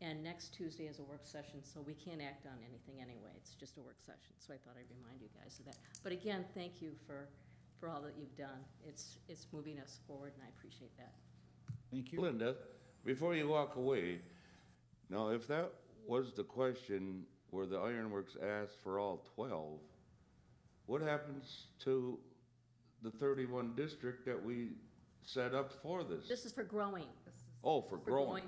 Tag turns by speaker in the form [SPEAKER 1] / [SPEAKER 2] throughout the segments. [SPEAKER 1] And next Tuesday is a work session, so we can't act on anything anyway. It's just a work session. So I thought I'd remind you guys of that. But again, thank you for, for all that you've done. It's, it's moving us forward and I appreciate that.
[SPEAKER 2] Thank you.
[SPEAKER 3] Linda, before you walk away, now, if that was the question where the ironworks asked for all twelve, what happens to the thirty-one district that we set up for this?
[SPEAKER 1] This is for growing.
[SPEAKER 3] Oh, for
[SPEAKER 1] For
[SPEAKER 3] growing?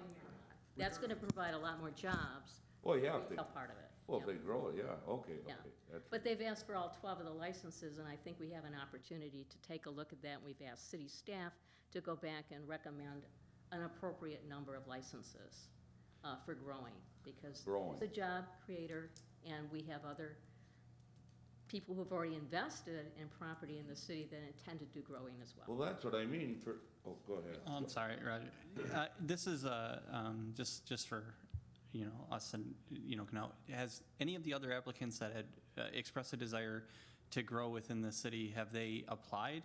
[SPEAKER 1] That's gonna provide a lot more jobs.
[SPEAKER 3] Oh, yeah, if they,
[SPEAKER 1] Retail part of it.
[SPEAKER 3] well,
[SPEAKER 1] yeah.
[SPEAKER 3] if they grow it, yeah, okay,
[SPEAKER 1] Yeah.
[SPEAKER 3] okay. that's-
[SPEAKER 1] But they've asked for all twelve of the licenses, and I think we have an opportunity to take a look at that. We've asked city staff to go back and recommend an appropriate number of licenses uh, for growing, because
[SPEAKER 3] Growing.
[SPEAKER 1] it's a job creator, and we have other people who've already invested in property in the city that intend to do growing as well.
[SPEAKER 3] Well, that's what I mean for, oh, go ahead.
[SPEAKER 4] I'm sorry, Roger. Uh, This is, uh, um, just, just for, you know, us and, you know, Canal, has any of the other applicants that had uh, expressed a desire to grow within the city, have they applied?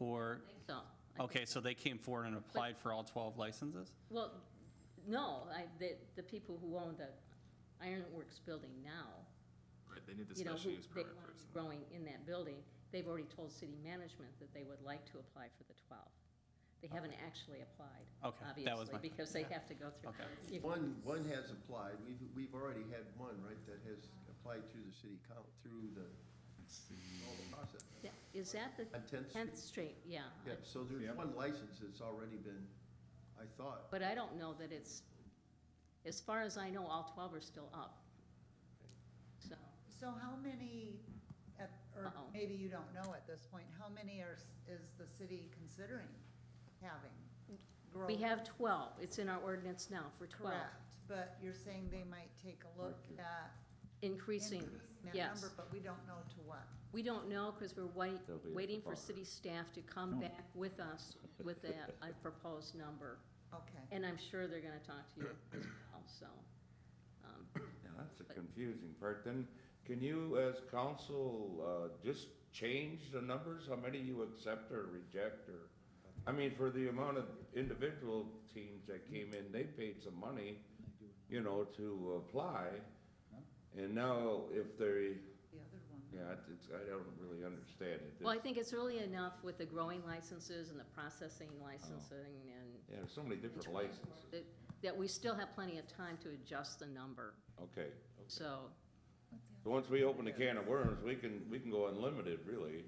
[SPEAKER 4] Or,
[SPEAKER 1] So, I-
[SPEAKER 4] okay, so they came forward and applied for all 12 licenses?
[SPEAKER 1] well, no, I, the, the people who own the Ironworks building now
[SPEAKER 5] Right, they need the
[SPEAKER 1] you know, who
[SPEAKER 5] special use
[SPEAKER 1] they
[SPEAKER 5] permit
[SPEAKER 1] want
[SPEAKER 5] first.
[SPEAKER 1] growing in that building, they've already told city management that they would like to apply for the twelve. They haven't actually applied,
[SPEAKER 4] Okay, that was
[SPEAKER 1] obviously,
[SPEAKER 4] my-
[SPEAKER 1] because they have to go through.
[SPEAKER 4] Okay.
[SPEAKER 1] You-
[SPEAKER 6] One, one has applied, we've, we've already had one, right, that has applied through the city count, through the, all the uh, process.
[SPEAKER 1] yeah, Is that the
[SPEAKER 6] On Tenth Street.
[SPEAKER 1] tenth street? Yeah.
[SPEAKER 6] Yeah, so there's one license that's already been, I thought,
[SPEAKER 1] But I don't know that it's, as far as I know, all twelve are still up. So,
[SPEAKER 7] So how many, at- or
[SPEAKER 1] Uh-oh.
[SPEAKER 7] maybe you don't know at this point, how many are, s- is the city considering having?
[SPEAKER 1] we
[SPEAKER 7] growth?
[SPEAKER 1] have twelve. It's in our ordinance now for twelve.
[SPEAKER 7] Correct, but you're saying they might take a look at
[SPEAKER 1] Increasing,
[SPEAKER 7] increasing that
[SPEAKER 1] yes.
[SPEAKER 7] number, but we don't know to what.
[SPEAKER 1] We don't know, because we're wait,
[SPEAKER 3] They'll be at the
[SPEAKER 1] waiting for
[SPEAKER 3] bar.
[SPEAKER 1] city staff to come back with us with a, a proposed number.
[SPEAKER 7] Okay,
[SPEAKER 1] And I'm sure they're gonna talk to you as well, so. um,
[SPEAKER 3] Now, that's the confusing part. Then, can you, as council, uh, just change the numbers? How many you accept or reject or? I mean, for the amount of individual teams that came in, they paid some money, you know, to apply. And now if they,
[SPEAKER 7] the other one.
[SPEAKER 3] yeah, it's- it's, I don't really understand it.
[SPEAKER 1] Well, I think it's really enough with the growing licenses and the processing
[SPEAKER 3] Oh.
[SPEAKER 1] licensing and
[SPEAKER 3] Yeah, there's so many different licenses.
[SPEAKER 1] that, that we still have plenty of time to adjust the number.
[SPEAKER 3] Okay.
[SPEAKER 1] So,
[SPEAKER 3] So once we open the can of worms, we can, we can go unlimited, really.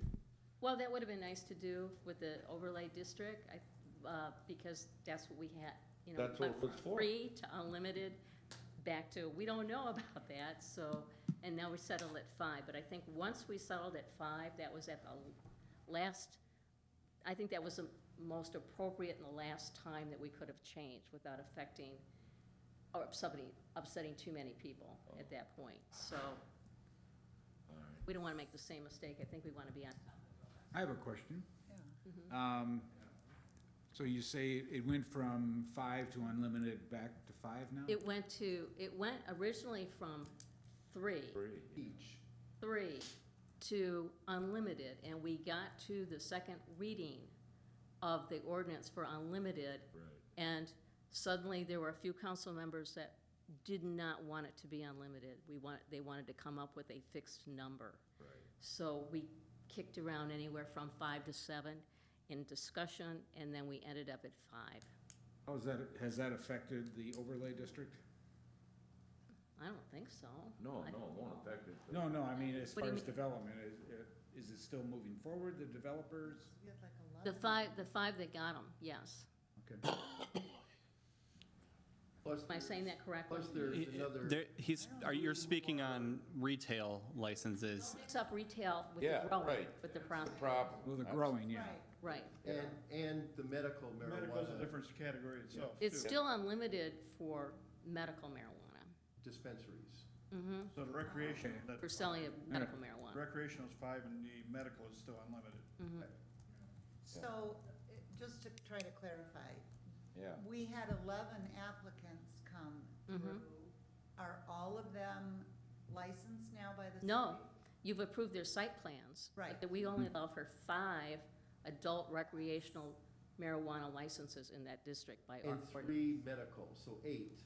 [SPEAKER 1] well, that would have been nice to do with the overlay district, I, uh, because that's what we had, you know.
[SPEAKER 3] That's what
[SPEAKER 1] went
[SPEAKER 3] it was
[SPEAKER 1] from
[SPEAKER 3] for.
[SPEAKER 1] Free to unlimited, back to, we don't know about that, so, and now we settled at five, but I think once we settled at five, that was at the last, I think that was the most appropriate and the last time that we could have changed without affecting, or somebody, upsetting too many people at that point, so. We don't wanna make the same mistake, I think we wanna be on top
[SPEAKER 2] I have a question.
[SPEAKER 7] Yeah.
[SPEAKER 2] Um, So you say it went from five to unlimited back to five now?
[SPEAKER 1] It went to, it went originally from three,
[SPEAKER 3] Free.
[SPEAKER 6] each.
[SPEAKER 1] three to unlimited, and we got to the second reading of the ordinance for unlimited,
[SPEAKER 3] Right.
[SPEAKER 1] and suddenly there were a few council members that did not want it to be unlimited. We want, they wanted to come up with a fixed number.
[SPEAKER 3] Right.
[SPEAKER 1] So we kicked around anywhere from five to seven in discussion, and then we ended up at five.
[SPEAKER 2] How's that, has that affected the overlay district?
[SPEAKER 1] I don't think so.
[SPEAKER 3] No,
[SPEAKER 1] I-
[SPEAKER 3] no, it won't affect it. but-
[SPEAKER 2] No, no, I mean, as
[SPEAKER 1] What do
[SPEAKER 2] far
[SPEAKER 1] you mean?
[SPEAKER 2] as development, is, uh, is it still moving forward, the developers?
[SPEAKER 7] We had like
[SPEAKER 1] The
[SPEAKER 7] 11.
[SPEAKER 1] five, the five that got them, yes.
[SPEAKER 2] Okay.
[SPEAKER 6] Plus
[SPEAKER 1] Am I saying
[SPEAKER 6] there's-
[SPEAKER 1] that correctly?
[SPEAKER 6] Plus there's
[SPEAKER 4] It- it-
[SPEAKER 6] another.
[SPEAKER 4] there- He's, are, you're speaking on retail licenses.
[SPEAKER 1] Mix up retail with the
[SPEAKER 3] Yeah,
[SPEAKER 1] growing,
[SPEAKER 3] right.
[SPEAKER 1] with the process,
[SPEAKER 3] Problem.
[SPEAKER 2] Well, they're
[SPEAKER 3] That's-
[SPEAKER 2] growing, yeah.
[SPEAKER 7] Right,
[SPEAKER 1] right.
[SPEAKER 6] And, and the medical
[SPEAKER 8] Medical's a
[SPEAKER 6] marijuana
[SPEAKER 8] different category
[SPEAKER 3] Oh,
[SPEAKER 8] itself.
[SPEAKER 1] It's
[SPEAKER 8] too.
[SPEAKER 1] still unlimited for medical marijuana,
[SPEAKER 6] dispensaries.
[SPEAKER 8] So the recreational, that,
[SPEAKER 1] for selling of medical marijuana. Mm-hmm.
[SPEAKER 8] recreational is five and the medical is still unlimited.
[SPEAKER 7] so, it- just to try to clarify,
[SPEAKER 3] Yeah.
[SPEAKER 7] we had eleven applicants come
[SPEAKER 1] Mm-hmm.
[SPEAKER 7] through. Are all of them licensed now by the city?
[SPEAKER 1] No, you've approved their site plans. but
[SPEAKER 7] Right.
[SPEAKER 1] That we only allow for five adult recreational marijuana licenses in that district by our
[SPEAKER 6] And
[SPEAKER 1] ordinance.
[SPEAKER 6] three medical, so eight.